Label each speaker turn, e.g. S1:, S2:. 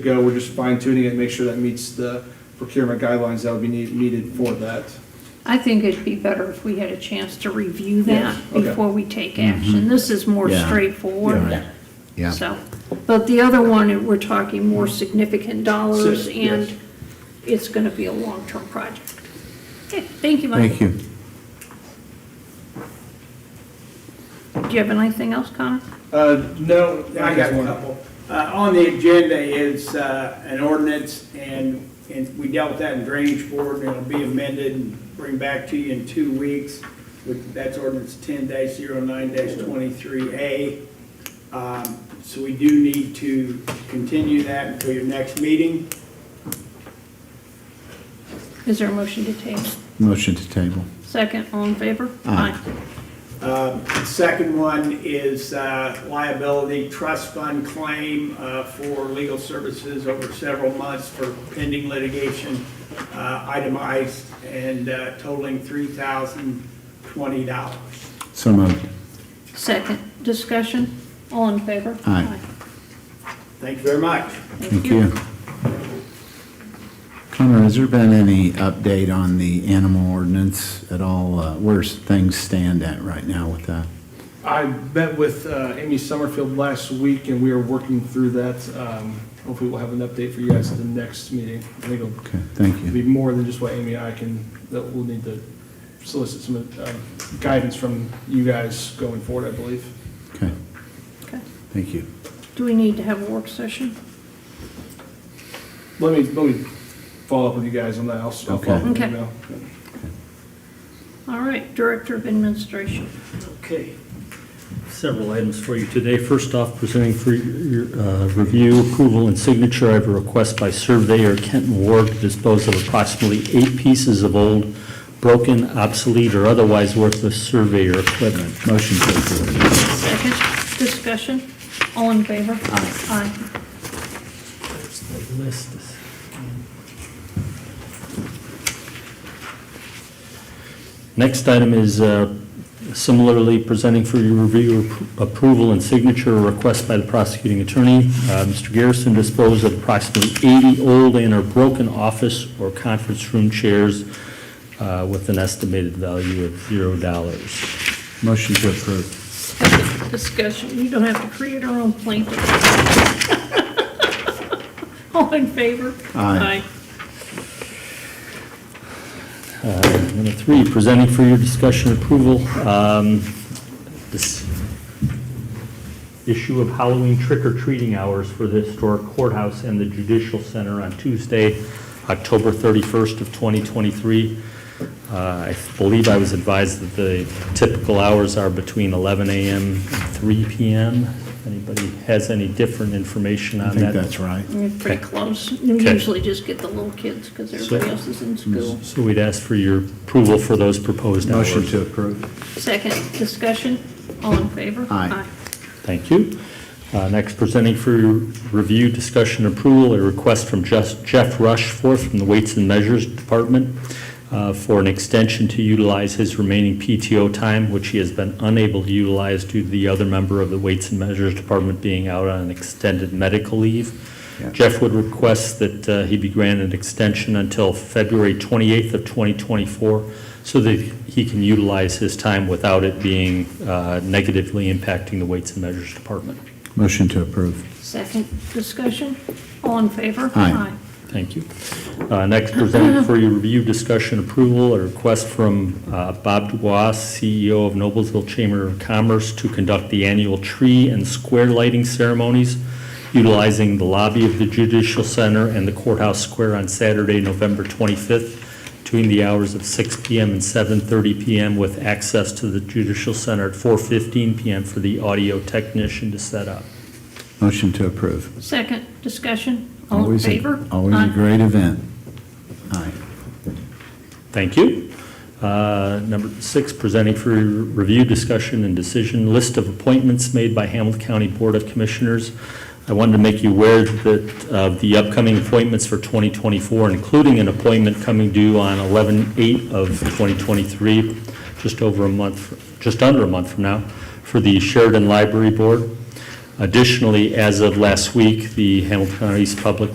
S1: go. We're just fine tuning it, make sure that meets the procurement guidelines that would be need- needed for that.
S2: I think it'd be better if we had a chance to review
S1: Yes,
S2: that
S1: okay.
S2: before we take action. This is more
S3: Mm-hmm. Yeah.
S2: straightforward.
S3: Yeah. Yeah. Mm-hmm.
S2: So, but the other one, we're talking more significant dollars
S1: Si- yes.
S2: and it's gonna be a long-term project. Okay, thank you, Mike.
S3: Thank you.
S2: Do you have anything else, Connor?
S1: Uh, no,
S4: I got a couple. Uh, On the agenda is uh, an ordinance, and, and we dealt with that in drainage board, and it'll be amended and bring back to you in two weeks. With- That's ordinance ten 9 twenty-three A. Um, So we do need to continue that until your next meeting.
S2: Is there a motion to table?
S3: Motion to table.
S2: Second, all in favor?
S3: Aye.
S4: Uh, Second one is uh, liability trust fund claim uh, for legal services over several months for pending litigation uh, itemized and uh, totaling $3,020.
S3: So moved.
S2: Second, discussion, all in favor?
S3: Aye.
S4: Thank you very much.
S3: Thank you. Connor, has there been any update on the animal ordinance at all? Uh, Where's things stand at right now with that?
S1: I met with uh, Amy Summerfield last week and we are working through that. Um, Hopefully we'll have an update for you guys at the next meeting. I think it'll
S3: Okay, thank you.
S1: be more than just what Amy and I can, that we'll need to solicit some um, guidance from you guys going forward, I believe.
S3: Okay,
S2: Okay.
S3: thank you.
S2: Do we need to have a work session?
S1: Let me, let me follow up with you guys on that. I'll I'll follow up with
S2: Okay.
S1: you now.
S2: All right, Director of Administration.
S4: Okay.
S5: Several items for you today. First off, presenting for your uh, review, approval, and signature, I have a request by surveyor Kenton Ward to dispose of approximately eight pieces of old, broken, obsolete, or otherwise worthless surveyor equipment.
S3: Motion to approve.
S2: Second, discussion, all in favor? Aye.
S5: List. Next item is uh, similarly presenting for your review, appro- approval, and signature a request by the prosecuting attorney. Uh, Mr. Garrison disposed of approximately 80 old and or broken office or conference room chairs uh, with an estimated value of $0.
S3: Motion to approve.
S2: Second, discussion, you don't have to create our own plaintiff. All in favor?
S3: Aye.
S5: Uh, Number three, presenting for your discussion and approval, um, this issue of Halloween trick-or-treating hours for the historic courthouse and the judicial center on Tuesday, October 31st of 2023. Uh, I believe I was advised that the typical hours are between 11 a.m. and 3 p.m. If Anybody has any different information
S3: I
S5: on
S3: think
S5: that?
S3: that's right.
S2: You're pretty
S5: Okay.
S2: close. You
S5: Okay.
S2: usually just get the little kids because everybody else is in school.
S5: So we'd ask for your approval for those proposed hours.
S3: Motion to approve.
S2: Second, discussion, all in favor?
S3: Mm. Aye.
S5: Thank you. Uh, Next, presenting for your review, discussion, approval, a request from Jeff Jeff Rushforth from the Weights and Measures Department uh, for an extension to utilize his remaining PTO time, which he has been unable to utilize due to the other member of the Weights and Measures Department being out on an extended medical leave.
S3: Yeah.
S5: Jeff would request that uh, he be granted an extension until February 28th of 2024 so that he can utilize his time without it being uh, negatively impacting the Weights and Measures Department.
S3: Motion to approve.
S2: Second, discussion, all in favor?
S3: Aye.
S5: Thank you. Uh, Next, presented for your review, discussion, approval, a request from uh, Bob Dubois, CEO of Noblesville Chamber of Commerce, to conduct the annual tree and square lighting ceremonies utilizing the lobby of the Judicial Center and the Courthouse Square on Saturday, November 25th, between the hours of 6 PM and 7:30 PM, with access to the Judicial Center at 4:15 PM for the audio technician to set up.
S3: Motion to approve.
S2: Second, discussion, all in
S3: Always, a-
S2: favor?
S3: always
S2: Aye.
S3: a great event. Aye.
S5: Thank you. Uh, Number six, presenting for review, discussion, and decision, list of appointments made by Hamilton County Board of Commissioners. I wanted to make you aware that of the upcoming appointments for 2024, including an appointment coming due on 11/8 of 2023, just over a month, just under a month from now, for the Sheridan Library Board. Additionally, as of last week, the Hamilton County's Public